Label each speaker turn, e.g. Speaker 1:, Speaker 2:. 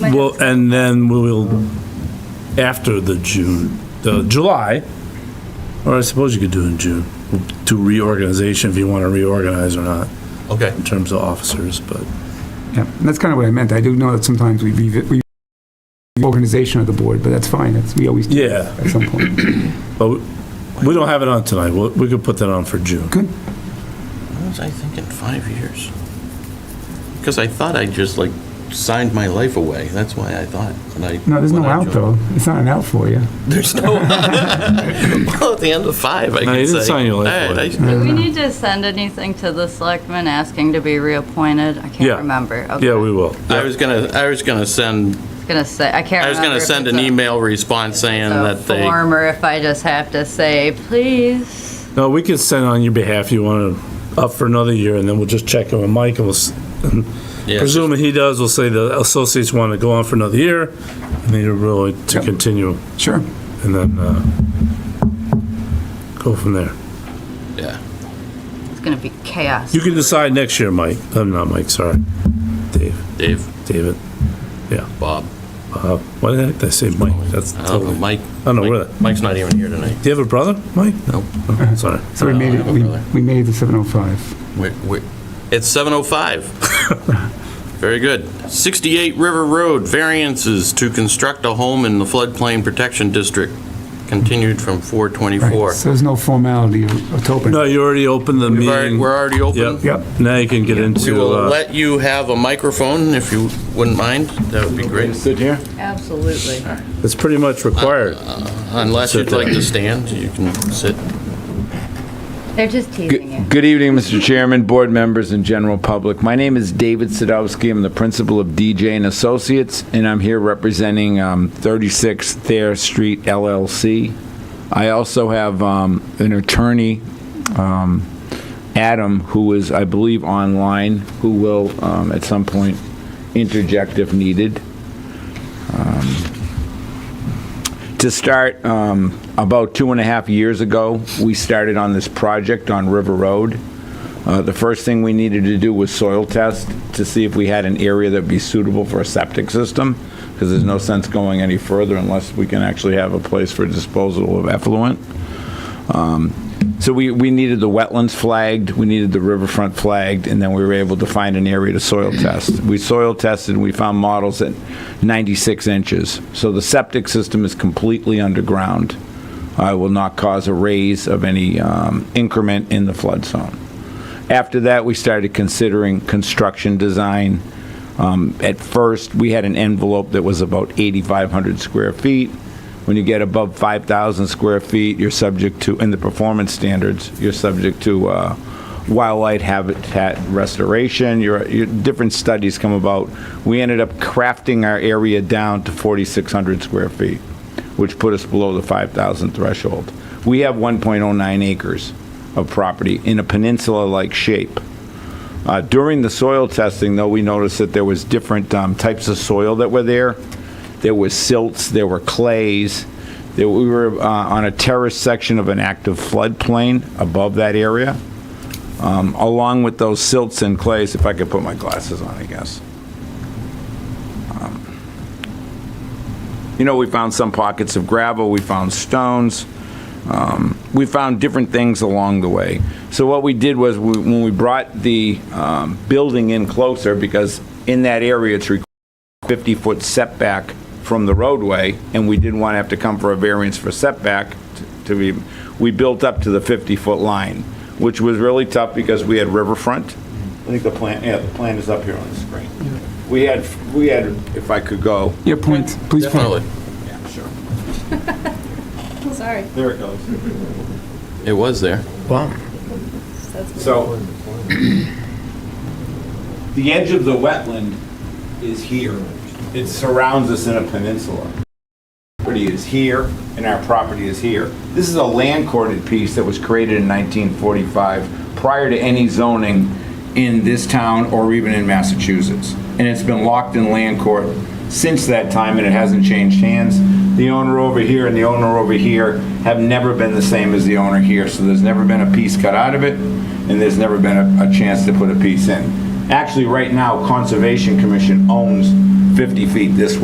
Speaker 1: Well, and then we will, after the June, the July, or I suppose you could do in June, do reorganization if you want to reorganize or not,
Speaker 2: Okay.
Speaker 1: in terms of officers, but.
Speaker 3: Yeah, and that's kind of what I meant. I do know that sometimes we revi- we organization of the board, but that's fine. That's, we always do
Speaker 1: Yeah.
Speaker 3: at some point.
Speaker 1: But we- we don't have it on tonight, we we could put that on for June.
Speaker 2: What was I thinking, five years? Because I thought I just like signed my life away. That's why I thought. when I-
Speaker 3: No, there's no
Speaker 2: when I
Speaker 3: out
Speaker 2: joined.
Speaker 3: though. It's not an out for you.
Speaker 2: There's no. Well, at the end of five, I
Speaker 1: No, you
Speaker 2: can say.
Speaker 1: didn't sign your life
Speaker 2: All right,
Speaker 1: away.
Speaker 2: I-
Speaker 4: Do we need to send anything to the selectmen asking to be reappointed? I
Speaker 1: Yeah.
Speaker 4: can't remember. Okay.
Speaker 1: Yeah, we will.
Speaker 2: I was gonna, I was gonna send,
Speaker 4: I was gonna say, I can't
Speaker 2: I
Speaker 4: remember.
Speaker 2: was gonna
Speaker 4: if
Speaker 2: send
Speaker 4: it's
Speaker 2: an
Speaker 4: a-
Speaker 2: email response saying
Speaker 4: a
Speaker 2: that they.
Speaker 4: Form, or if I just have to say, please.
Speaker 1: No, we can send on your behalf, you want to, up for another year, and then we'll just check in with Mike, and we'll, s-
Speaker 2: Yes.
Speaker 1: presuming he does, we'll say the associates want to go on for another year, and they are really to
Speaker 3: Yep.
Speaker 1: continue.
Speaker 3: Sure.
Speaker 1: and then uh, go from there.
Speaker 2: Yeah.
Speaker 4: It's gonna be chaos.
Speaker 1: You can decide next year, Mike. I'm not Mike, sorry. Dave,
Speaker 2: Dave,
Speaker 1: David.
Speaker 2: Bob,
Speaker 1: Uh, Why the heck did I say Mike? That's
Speaker 2: I don't know,
Speaker 1: totally, I
Speaker 2: Mike.
Speaker 1: don't know where
Speaker 2: Mike-
Speaker 1: that,
Speaker 2: Mike's not even here tonight.
Speaker 1: do you have a brother, Mike?
Speaker 2: Nope.
Speaker 1: Oh, Sorry.
Speaker 3: So we
Speaker 2: Uh,
Speaker 3: made it.
Speaker 2: I
Speaker 3: We,
Speaker 2: don't know.
Speaker 3: we made oh it to 7:05.
Speaker 2: We're- we're- It's 7:05. Very good. 68 River Road, variances to construct a home in the floodplain protection district, continued from 4:24.
Speaker 3: Right. So there's no formality of, of open.
Speaker 1: No, you already opened the
Speaker 2: We've already-
Speaker 1: meeting.
Speaker 2: We're already open?
Speaker 1: Yep.
Speaker 3: Yep.
Speaker 1: Now you can get
Speaker 2: We
Speaker 1: into,
Speaker 2: will
Speaker 1: uh,
Speaker 2: let you have a microphone if you wouldn't mind. That would be great.
Speaker 4: Absolutely.
Speaker 1: it's pretty much required.
Speaker 2: Unless you'd
Speaker 1: Sit
Speaker 2: like
Speaker 1: down.
Speaker 2: to stand, you can sit.
Speaker 4: They're just teasing you.
Speaker 5: Good good evening, Mr. Chairman, board members, and general public. My name is David Sadowski. I'm the principal of DJ and Associates, and I'm here representing um, 36 Thayer Street LLC. I also have um, an attorney, um, Adam, who is, I believe, online, who will um, at some point interject if needed. to start, um, about two and a half years ago, we started on this project on River Road. Uh, the first thing we needed to do was soil test to see if we had an area that'd be suitable for a septic system, because there's no sense going any further unless we can actually have a place for disposal of effluent. So we, we needed the wetlands flagged, we needed the riverfront flagged, and then we were able to find an area to soil test. We soil tested, and we found models at 96 inches. So the septic system is completely underground. I will not cause a raise of any um, increment in the flood zone. After that, we started considering construction design. Um, At first, we had an envelope that was about 8,500 square feet. When you get above 5,000 square feet, you're subject to, in the performance standards, you're subject to uh, wildlife habitat restoration, your, your different studies come about. We ended up crafting our area down to 4,600 square feet, which put us below the 5,000 threshold. We have 1.09 acres of property in a peninsula-like shape. Uh, During the soil testing, though, we noticed that there was different um, types of soil that were there. There was silts, there were clays, there, we were uh, on a terrace section of an active floodplain above that area. Um, Along with those silts and clays, if I could put my glasses on, I guess. Um, You know, we found some pockets of gravel, we found stones we found different things along the way. So what we did was, we- when we brought the um, building in closer, because in that area, it's required 50-foot setback from the roadway, and we didn't want to have to come for a variance for setback t- to be, we built up to the 50-foot line, which was really tough because we had riverfront. I think the plan, yeah, the plan is up here on the screen. We had, we had, if I could go.
Speaker 3: Yeah. Point. Please
Speaker 2: Definitely.
Speaker 3: point.
Speaker 5: Yeah, sure.
Speaker 6: Sorry.
Speaker 5: There it goes.
Speaker 2: It was there.
Speaker 5: So, the edge of the wetland is here. It surrounds us in a peninsula. Property is here, and our property is here. This is a land courted piece that was created in 1945, prior to any zoning in this town or even in Massachusetts. And it's been locked in land court since that time, and it hasn't changed hands. The owner over here and the owner over here have never been the same as the owner here, so there's never been a piece cut out of it, and there's never been a, a chance to put a piece in. Actually, right now, Conservation Commission owns 50 feet this way.